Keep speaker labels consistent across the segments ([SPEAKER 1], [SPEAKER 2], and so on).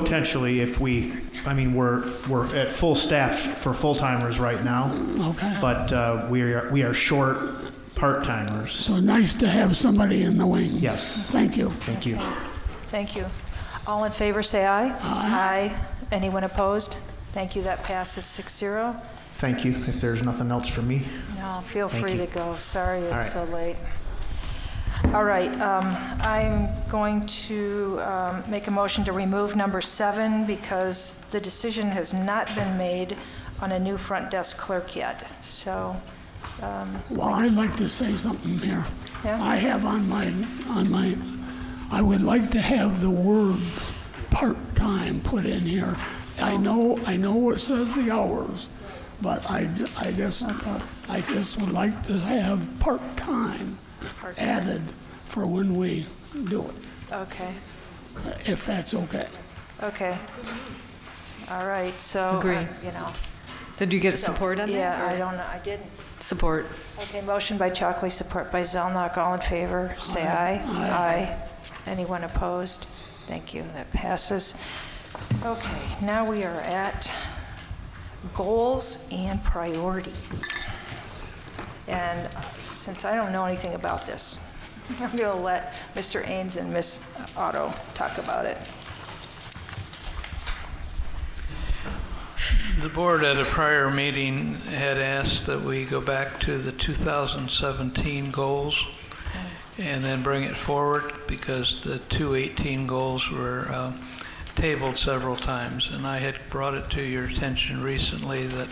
[SPEAKER 1] Potentially, if we, I mean, we're, we're at full staff for full-timers right now,
[SPEAKER 2] Okay.
[SPEAKER 1] but uh, we are, we are short part-timers.
[SPEAKER 2] So nice to have somebody in the wing.
[SPEAKER 1] Yes,
[SPEAKER 2] Thank you.
[SPEAKER 1] thank you.
[SPEAKER 3] Thank you. All in favor, say aye. Aye. Anyone opposed? Thank you, that passes 6-0.
[SPEAKER 1] Thank you, if there's nothing else for me.
[SPEAKER 3] No, feel free
[SPEAKER 1] you.
[SPEAKER 3] to go, sorry
[SPEAKER 1] right.
[SPEAKER 3] it's so late. All right, um, I'm going to um, make a motion to remove number seven because the decision has not been made on a new front desk clerk yet. So,
[SPEAKER 2] Well, I'd like to say something here.
[SPEAKER 3] Yeah.
[SPEAKER 2] I have on my, on my, I would like to have the words part-time put in here. I know, I know it says the hours, but I, I just, I just would like to have part-time added for when we do it,
[SPEAKER 3] okay,
[SPEAKER 2] if that's okay.
[SPEAKER 3] okay. All right, so, uh,
[SPEAKER 4] Agree.
[SPEAKER 3] you know.
[SPEAKER 4] Did you get
[SPEAKER 3] so-
[SPEAKER 4] support on that?
[SPEAKER 3] Yeah,
[SPEAKER 4] or-
[SPEAKER 3] I don't know, I didn't.
[SPEAKER 4] Support.
[SPEAKER 3] Okay, motion by Chalkley, support by Zelnok. All in favor, say aye. Aye. Anyone opposed? Thank you, that passes. Okay, now we are at goals and priorities. And since I don't know anything about this, I'm going to let Mr. Ains and Ms. Otto talk about it.
[SPEAKER 5] The board at a prior meeting had asked that we go back to the 2017 goals and then bring it forward because the 2018 goals were um, tabled several times. And I had brought it to your attention recently that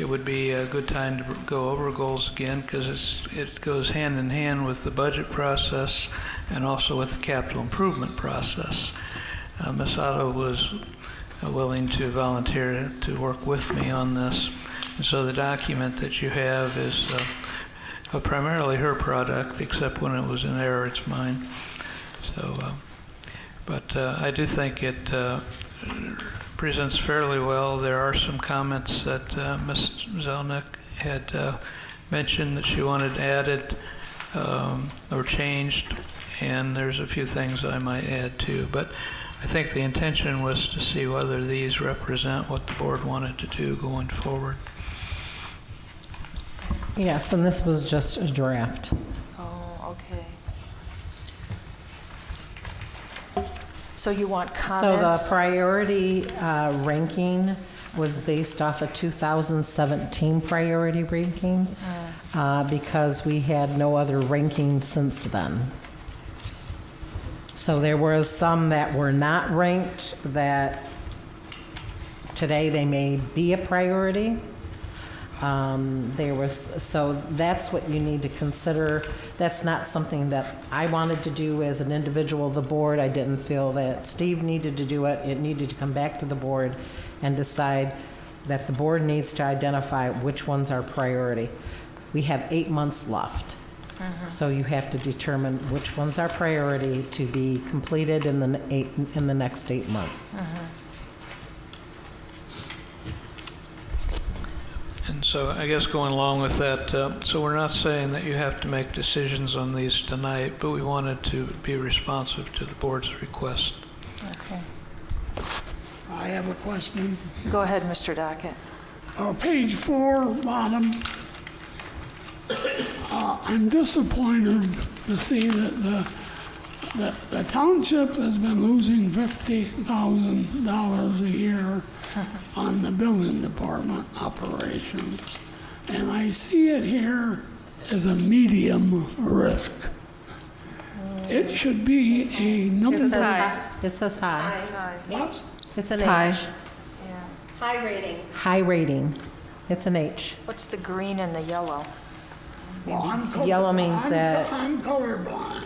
[SPEAKER 5] it would be a good time to go over goals again because it's, it goes hand in hand with the budget process and also with the capital improvement process. Uh, Ms. Otto was uh, willing to volunteer to work with me on this. And so the document that you have is uh, uh, primarily her product, except when it was in error, it's mine. So, uh, but uh, I do think it uh, presents fairly well. There are some comments that uh, Ms. Zelnick had uh, mentioned that she wanted added um, or changed, and there's a few things I might add too. But I think the intention was to see whether these represent what the board wanted to do going forward.
[SPEAKER 6] Yes, and this was just a draft.
[SPEAKER 3] Oh, okay. So you want
[SPEAKER 6] So the
[SPEAKER 3] comments?
[SPEAKER 6] priority uh, ranking was based off a 2017 priority ranking uh, because we had no other ranking since then. So there were some that were not ranked that today they may be a priority. Um, There was, so that's what you need to consider. That's not something that I wanted to do as an individual of the board. I didn't feel that Steve needed to do it. It needed to come back to the board and decide that the board needs to identify which ones are priority. We have eight months left. So you have to determine which ones are priority to be completed in the n- eight, in the next eight months.
[SPEAKER 5] And so I guess going along with that, uh, so we're not saying that you have to make decisions on these tonight, but we wanted to be responsive to the board's request.
[SPEAKER 3] Okay.
[SPEAKER 2] I have a question.
[SPEAKER 3] Go ahead, Mr. Dockett.
[SPEAKER 2] Uh, page four, bottom. Uh, I'm disappointed to see that the, that the township has been losing fifty thousand dollars a year on the building department operations. And I see it here as a medium risk. It should be a number.
[SPEAKER 6] It says hi- It says high.
[SPEAKER 2] What?
[SPEAKER 6] It's an
[SPEAKER 4] It's high.
[SPEAKER 6] H. High rating. It's an H.
[SPEAKER 3] What's the green and the yellow?
[SPEAKER 2] Well, I'm color-
[SPEAKER 6] Yellow means
[SPEAKER 2] I'm-
[SPEAKER 6] that-
[SPEAKER 2] I'm colorblind.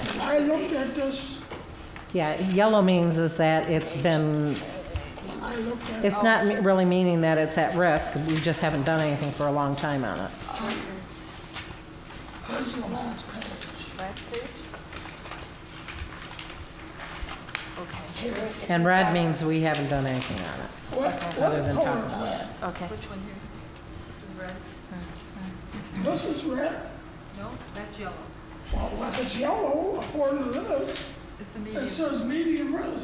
[SPEAKER 2] And I looked at this,
[SPEAKER 6] Yeah, yellow means is that it's been,
[SPEAKER 2] I looked at,
[SPEAKER 6] it's not me- really meaning that it's at risk. We just haven't done anything for a long time on it.
[SPEAKER 2] where's the last page?
[SPEAKER 3] Okay,
[SPEAKER 6] And red means we haven't done anything on it.
[SPEAKER 2] What,
[SPEAKER 6] Other
[SPEAKER 2] what
[SPEAKER 6] than
[SPEAKER 2] color
[SPEAKER 6] talk
[SPEAKER 2] is that?
[SPEAKER 3] okay.
[SPEAKER 2] This is red? No, that's yellow. Well, if it's yellow, according to this, it says medium risk.